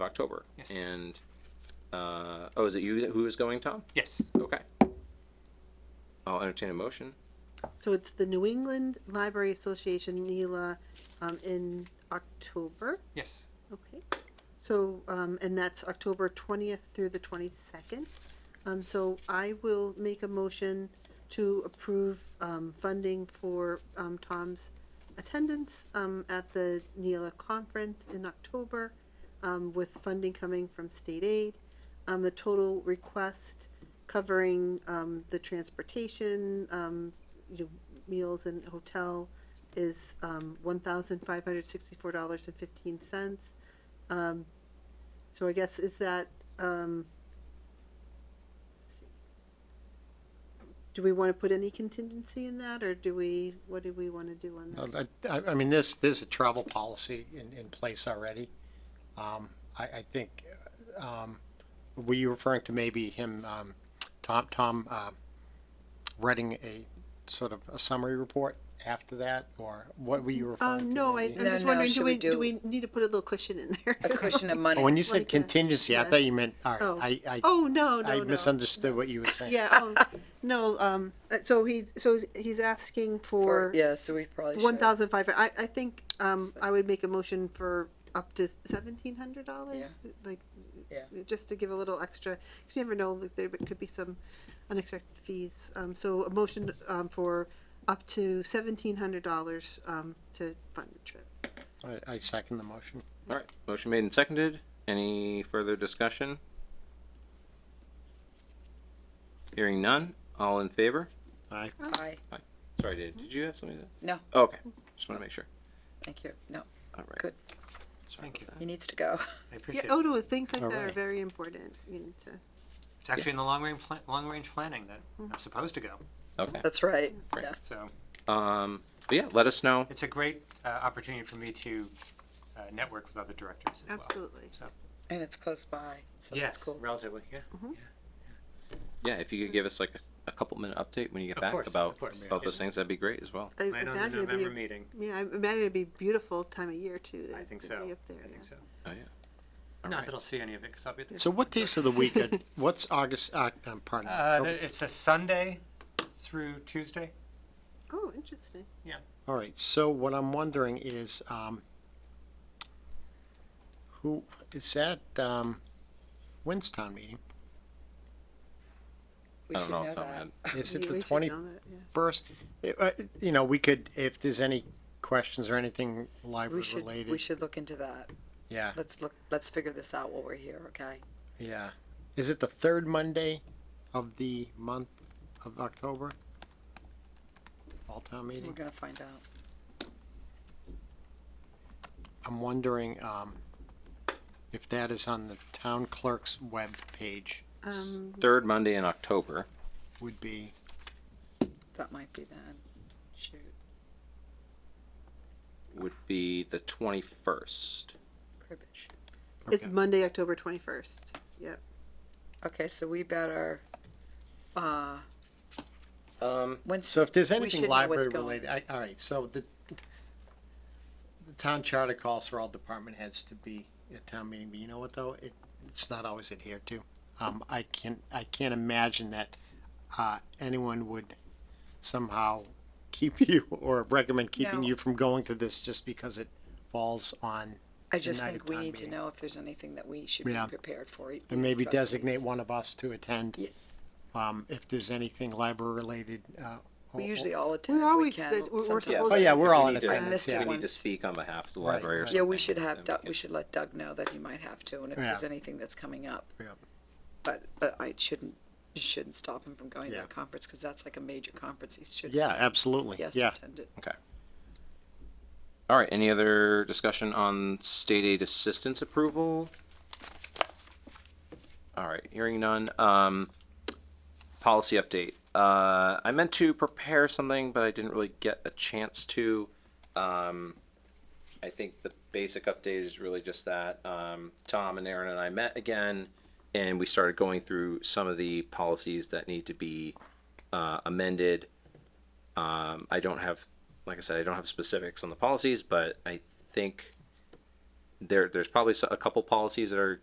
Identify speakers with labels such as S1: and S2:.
S1: of October.
S2: Yes.
S1: And, uh, oh, is it you who is going, Tom?
S2: Yes.
S1: Okay. I'll entertain a motion.
S3: So it's the New England Library Association, NELA, um, in October.
S2: Yes.
S3: Okay. So, um, and that's October twentieth through the twenty-second. Um, so I will make a motion to approve, um, funding for, um, Tom's attendance, um, at the NELA conference in October, um, with funding coming from state aid. Um, the total request covering, um, the transportation, um, you know, meals and hotel is, um, one thousand five hundred sixty-four dollars and fifteen cents. Um, So I guess is that, um, do we wanna put any contingency in that, or do we, what do we wanna do on that?
S4: Uh, I, I mean, this, there's a travel policy in, in place already. Um, I, I think, um, were you referring to maybe him, um, Tom, Tom, um, writing a sort of a summary report after that, or what were you referring to?
S3: Um, no, I, I'm
S4: maybe?
S5: No,
S3: just
S5: no,
S3: wondering, do
S5: should
S3: we,
S5: we
S3: do
S5: do-
S3: we need to put a little cushion in there?
S5: a cushion of money.
S4: Oh, When you
S3: like
S4: said
S3: a-
S4: contingency, I
S3: yeah.
S4: thought you meant, all
S3: Oh.
S4: right, I, I,
S3: Oh, no, no,
S4: I
S3: no.
S4: misunderstood what you were saying.
S3: Yeah, oh, no, um, uh, so he's, so he's- he's asking for
S5: Or- yeah, so we probably should.
S3: one thousand five, I, I think, um, I would make a motion for up to seventeen hundred dollars, like,
S5: Yeah.
S3: just to give a little extra, because you never know, like, there could be some unexpected fees. Um, so a motion, um, for up to seventeen hundred dollars, um, to fund the trip.
S4: I, I second the motion.
S1: All right. Motion made and seconded. Any further discussion? Hearing none. All in favor?
S4: Aye.
S5: Aye.
S1: Sorry, did, did you have something to?
S5: No,
S1: Okay. Just want to make sure.
S5: thank you. No,
S1: All right.
S5: Good.
S1: Sorry
S2: Thank
S1: about
S5: he needs to go.
S2: I
S3: Yeah,
S2: appreciate
S3: oh,
S2: it.
S3: no, things like that are
S4: Alright.
S3: very important, you need to,
S2: It's actually in the long range pla- long range planning that
S3: Mm-hmm.
S2: I'm supposed to go.
S1: that. Okay.
S5: That's right.
S1: Right.
S5: Yeah.
S2: So
S1: Um, but yeah, let us know.
S2: it's a great uh, opportunity for me to uh, network with other directors as well.
S3: absolutely.
S5: And it's close by, so
S2: Yeah,
S5: that's cool.
S2: relatively. Yeah.
S1: Yeah, if you could give us like a couple minute update when you get
S2: Of
S1: back
S2: course,
S1: about
S2: of course.
S1: about those things, that'd be great as well.
S3: I
S2: Plan on the
S3: imagine it'd be,
S2: November
S3: a-
S2: meeting.
S3: yeah, I imagine it'd be beautiful time of year too. to-
S2: I think
S3: to
S2: so.
S3: be up there,
S2: I think
S3: yeah.
S2: so.
S1: Oh yeah. All
S2: Not
S1: right.
S2: that I'll see any of it because I'll be at the
S4: So what days of the week, are- what's August, uh, um, pardon?
S2: Uh,
S4: October?
S2: th- it's a Sunday through Tuesday.
S3: Oh, interesting.
S4: All right, so what I'm wondering is, um, who, is that, um, Winstown meeting?
S5: We
S1: I
S5: should
S1: don't know off the top of my
S5: that.
S1: head.
S4: Is it
S3: We- we
S4: the
S3: should
S4: twenty-first? uh,
S3: know that, yeah.
S4: You know, we could, if there's any questions or anything
S5: We
S4: library
S5: should we
S4: related,
S5: should look into that.
S4: yeah,
S5: Let's look. Let's figure this out while we're here. Okay.
S4: yeah. Is it the third Monday of the month of October? All town
S5: We're
S4: meeting?
S5: gonna find out.
S4: I'm wondering, um, if that is on the town clerk's web page
S3: Um,
S1: Third Monday in October.
S4: would be,
S5: That might be then. Shoot.
S1: would be the 21st.
S5: Cribbage.
S3: it's
S4: Okay.
S3: Monday, October twenty-first. Yep.
S5: Okay, so we better. Uh,
S1: Um,
S5: when
S4: So if there's
S5: we
S4: anything
S5: should know what's
S4: library
S5: going-
S4: related, I, all right, so the, the town charter calls for all department heads to be at town meeting, but you know what though? It, it's not always adhered to. Um, I can, I can't imagine that, uh, anyone would somehow keep you or recommend keeping
S5: No.
S4: you from going to this just because it falls on,
S5: I just
S4: United
S5: think we
S4: Town
S5: need to
S4: Meeting.
S5: know if there's anything that we should
S4: Yeah.
S5: be prepared for. each
S4: and maybe
S5: trustee's.
S4: designate one of us to attend.
S5: Yeah.
S4: Um, if there's anything library related, uh.
S5: We
S4: or-
S5: usually all attend
S3: We're
S5: if we
S3: always
S5: can.
S3: good. We're- we're
S5: sometimes.
S3: supposed
S4: Oh, yeah, we're all in
S1: need to-
S4: attendance,
S5: missed it
S4: yeah.
S1: we need to
S5: Once.
S1: speak on behalf of the
S4: Right,
S1: library or
S4: right.
S1: something.
S5: Yeah, we should have
S1: then
S5: Doug, we should let Doug know that he might have to, and if there's
S4: Yeah.
S5: anything that's coming up.
S4: Yeah.
S5: But, but I shouldn't, you shouldn't stop him from going to
S4: Yeah.
S5: that conference, cause that's like a major conference, he should.
S4: Yeah, absolutely,
S5: He has to
S4: yeah.
S5: attend it.
S1: All right, any other discussion on state aid assistance approval? All right, hearing none. Um, policy update. Uh, I meant to prepare something, but I didn't really get a chance to. Um, I think the basic update is really just that um, Tom and Aaron and I met again, and we started going through some of the policies that need to be uh, amended. Um, I don't have, like I said, I don't have specifics on the policies, but I think there, there's probably so- a couple policies that are